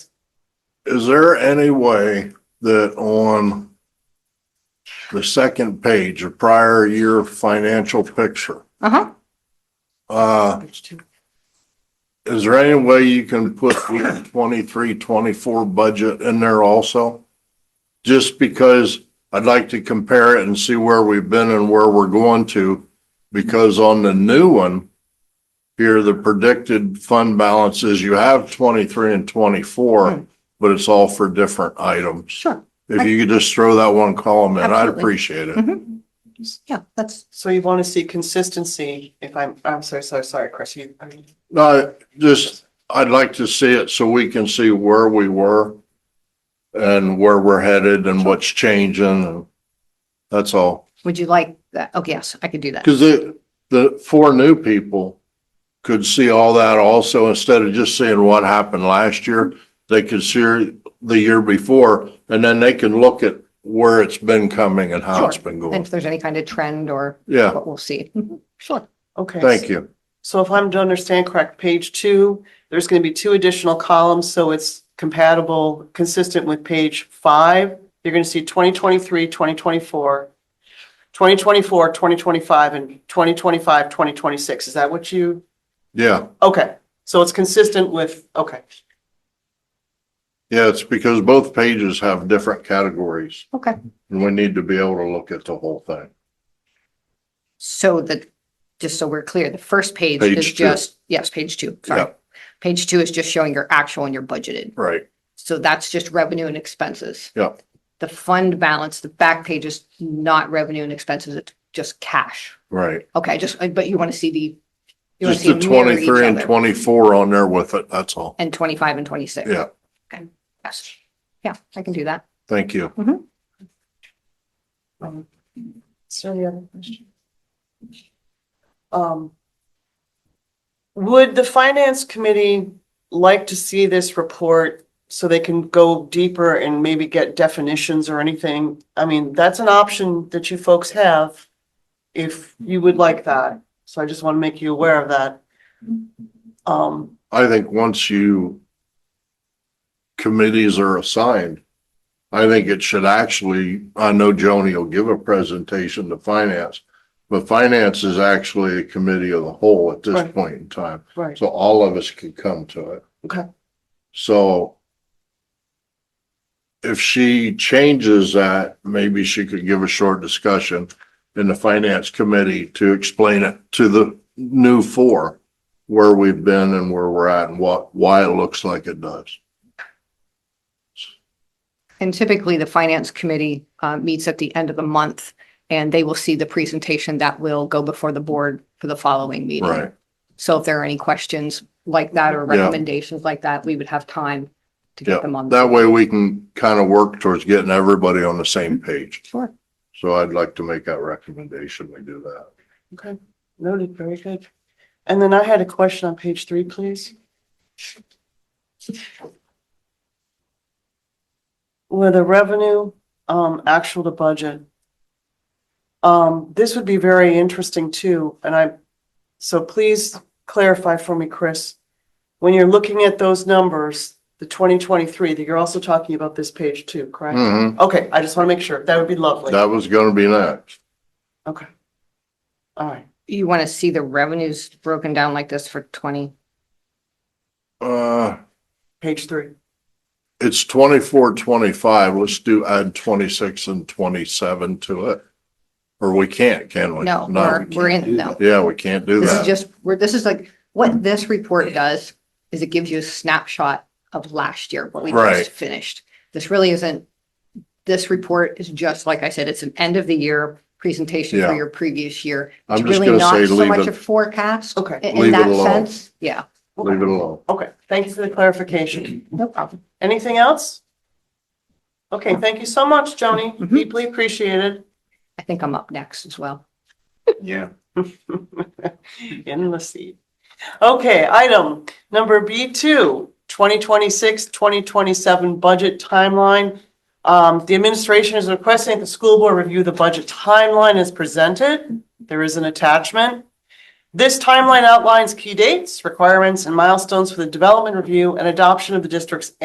Is there any way that on the second page, a prior year financial picture, Uh-huh. uh, is there any way you can put the 23, 24 budget in there also? Just because I'd like to compare it and see where we've been and where we're going to. Because on the new one, here, the predicted fund balance is you have 23 and 24, Mm. but it's all for different items. Sure. If you could just throw that one column in, I'd Absolutely. appreciate it. Mhm. Yeah, that's, So you want to see consistency, if I'm, I'm so, so sorry, Chris, you, I mean, No, just, I'd like to see it so we can see where we were and where we're headed and what's changing. That's all. would you like that? Okay, yes, I could do that. Because the, the four new people could see all that also, instead of just seeing what happened last year, they could see the year before, and then they can look at where it's been coming and how it's been And going. if there's any kind of trend or Yeah, what we'll see. Mhm. Sure. okay. thank you. So if I'm to understand correct, page two, there's going to be two additional columns, so it's compatible, consistent with page five. You're going to see 2023, 2024, 2024, 2025, and 2025, 2026. Is that what you, Yeah, okay, so it's consistent with, okay, yeah, it's because both pages have different categories, Okay. and we need to be able to look at the whole thing. So the, just so we're clear, the first page Page is two. just, yes, page two, sorry. Yeah. Page two is just showing your actual and your budgeted. Right, So that's just revenue and expenses. Yeah. The fund balance, the back page is not revenue and expenses, it's just cash. right. Okay, just, but you want to see the. you wanna Just see the them mirror each twenty-three and other. twenty-four on there with it, that's all. And twenty-five and twenty-six. Yeah, Okay, yes, yeah, I can do that. thank you. Um, Is there any other question? Um, Would the finance committee like to see this report so they can go deeper and maybe get definitions or anything? I mean, that's an option that you folks have if you would like that. So I just want to make you aware of that. Um, I think once you committees are assigned, I think it should actually, I know Joni will give a presentation to finance, but finance is actually a committee of the whole at this Right. point in time. right, So all of us could come to it. okay, So if she changes that, maybe she could give a short discussion in the finance committee to explain it to the new four, where we've been and where we're at and what, why it looks like it does. And typically, the finance committee uh, meets at the end of the month, and they will see the presentation that will go before the board for the following meeting. Right. So if there are any questions like that or Yeah. recommendations like that, we would have time to Yeah. get them on. That way we can kind of work towards getting everybody on the same page. Sure. So I'd like to make that recommendation. We do that. okay. Noted, very good. And then I had a question on page three, please. With the revenue, um, actual to budget. Um, this would be very interesting too, and I, so please clarify for me, Chris. When you're looking at those numbers, the twenty twenty-three, that you're also talking about this page too, correct? Mhm. Okay, I just want to make sure. That would be lovely. That was going to be next. Okay. All right, You want to see the revenues broken down like this for twenty? Uh, page three. It's twenty-four, twenty-five. Let's do add twenty-six and twenty-seven to it. Or we can't, can we? No, we're, we we're can't. in, no. Yeah, we can't do This is that. Mm-hmm. just, we're, this is like, what this report does is it gives you a snapshot of last year, what we Right. just finished. This really isn't, this report is just, like I said, it's an end of the year presentation for Yeah. your previous year. I'm It's just really gonna not say so leave much it- a Forecast Okay. in- Leave in it that alone. sense, yeah, Leave it alone. Okay, thank you for the clarification. no problem. Anything else? Okay, thank you so much, Joni. Mhm. Deeply appreciated. I think I'm up next as well. Yeah. In the seat. Okay, item number B two, 2026-2027 budget timeline. Um, the administration is requesting that the school board review the budget timeline as presented. There is an attachment. This timeline outlines key dates, requirements, and milestones for the development review and adoption of the district's